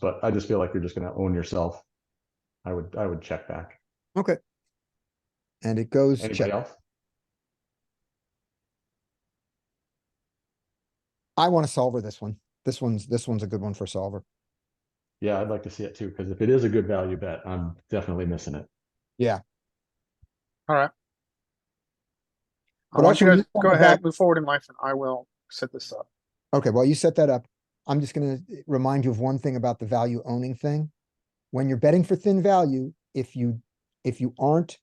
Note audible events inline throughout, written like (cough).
But I just feel like you're just gonna own yourself. I would, I would check back. and it goes Anybody check. else? I want to solver this one. This one's, this one's a good one for solver. Yeah, I'd like to see it too, because if it is a good value bet, I'm definitely missing it. But I want also you guys move go on ahead, back- move forward in life, and I will set this up. Okay, well, you set that up. I'm just gonna eh, remind you of one thing about the value owning thing. When you're betting for thin value, if you, if you aren't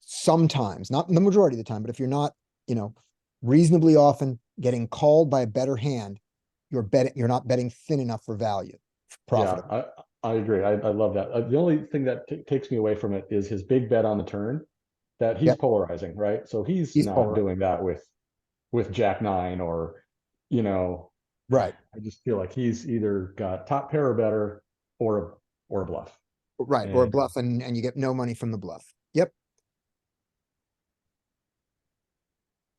sometimes, not the majority of the time, but if you're not, you know, reasonably often getting called by a better hand, you're betting, you're not betting thin enough for value, for Yeah, profit. I, I agree. I, I love that. Uh, The only thing that ta- takes me away from it is his big bet on the turn. That he's Yeah. polarizing, right? So he's He's not polar- doing that with, with jack nine or, you know, Right, I just feel like he's either got top pair or better or, or a bluff. right. Or a Yeah. bluff and, and you get no money from the bluff. Yep,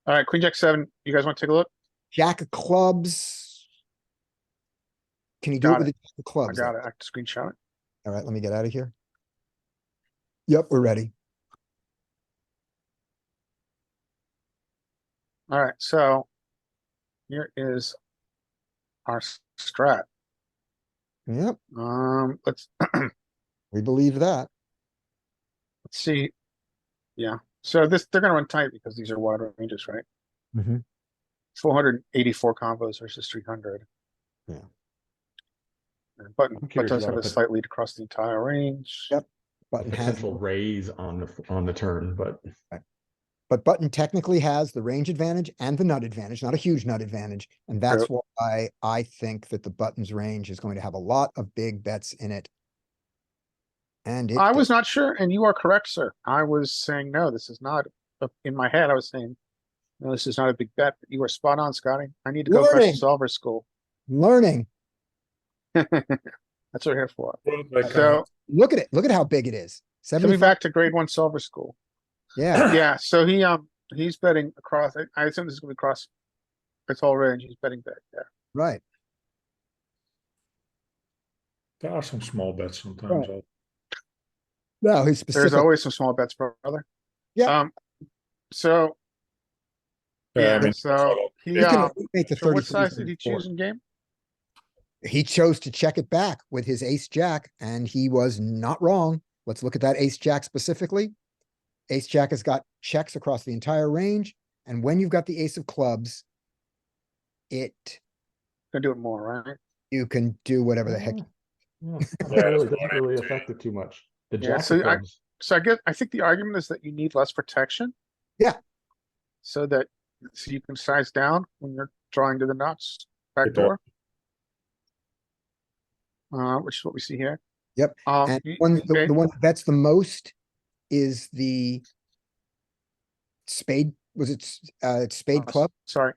All right, Queen Jack seven. You guys want to take a look? jack of clubs. Can you do it Got with a it. jack of I clubs? though? got it. I can screenshot it. All right, let me get out of here. Yep, we're ready. All right, so here is our s- strat. Yep, Um, let's we believe that. let's see. Yeah, so this they're gonna run tight because these are wide ranges, right? Mhm. Four hundred eighty-four combos versus three hundred. Yeah. And button I'm but curious does about have a it, but- slight lead across the entire range. Yep. Button has, Potential raise on the, on the turn, but but button technically has the range advantage and the nut advantage, not a huge nut advantage. And that's why I think that the button's range is going to have a lot of big bets in it. And it. I did. was not sure, and you are correct, sir. I was saying, no, this is not, uh, in my head, I was saying, no, this is not a big bet. but You are spot on, Scotty. I need to go crush Learning. solver school. Learning, That's what we're here for. So, So, look at it, look at how big it is. coming Seventy-five, back to grade one solver (clears throat) school. yeah, Yeah, so he, um, he's betting across, I- I assume this is gonna be across its whole range. He's betting back there. right. there are some small bets sometimes. also. No, he's There's specific. always some small bets, brother. Yeah. Um, So, Yeah, I yeah, mean, so he, You can um, make the so 30, what size did he 34. choose in game? He chose to check it back with his ace jack and he was not wrong. Let's look at that ace jack specifically. Ace jack has got checks across the entire range. And when you've got the ace of clubs, it, Gonna do it more, right? you can do whatever the heck. Yeah. Yeah, Yeah, really that's doesn't what I really would say. affect it too much. The Yeah, jack so of I- clubs, So I guess I think the argument is that you need less protection. Yeah. So that so you can size down when you're drawing to the nuts back Good point. door. Uh, which is what we see here. Yep, Um, And y- one, the, okay, the one that bets the most is the spade, was it, s- uh, it's spade uh, s- club? Sorry,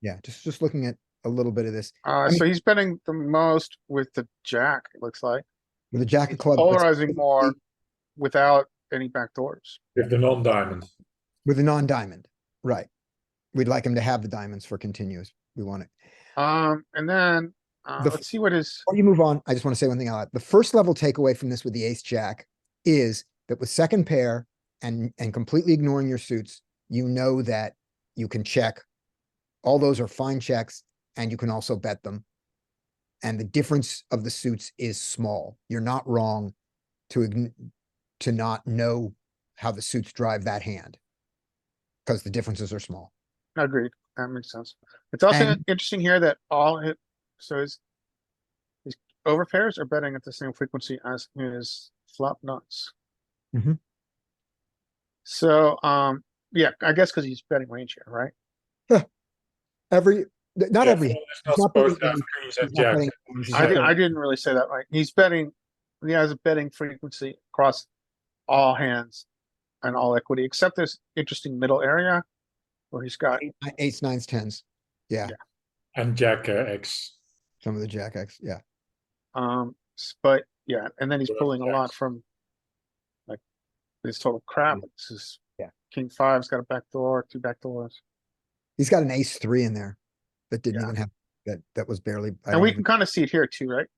Yeah, just, just looking at a little bit of this uh, mean- so he's betting the most with the jack, it looks like. with the jack of He's clubs. that's Polarizing more basically without any backdoors. With the non-diamond. With a non-diamond, right. We'd like him to have the diamonds for continuous. We want it. Um, and then, uh, The f- let's see what his, Before you move on, I just want to say one thing. out. The first level takeaway from this with the ace jack is that with second pair and, and completely ignoring your suits, you know that you can check. All those are fine checks and you can also bet them. And the difference of the suits is small. You're not wrong to, ign- to not know how the suits drive that hand. Because the differences are small. agreed, that makes sense. It's also And- interesting here that all hit, so his his overpairs are betting at the same frequency as his flop nuts. Mhm. So, um, yeah, I guess because he's betting range here, right? Every, th- not Yeah, every, It's not not supposed to betting have any- queens he's and not betting jacks. queens, I he's didn't, Yeah. I didn't really say that right. He's betting, he has a betting frequency across all hands and all equity, except this interesting middle area where he's got eights, nines, tens, And jack uh, X. some of the jack X, yeah. Um, s- but yeah, and then he's Whatever pulling a lot jacks. from like this total crap. This is Yeah. king five's got a back door, two back doors. He's got an ace three in there that didn't Yeah. even have that, that was barely. I And don't we even- can kind of see it here too, right?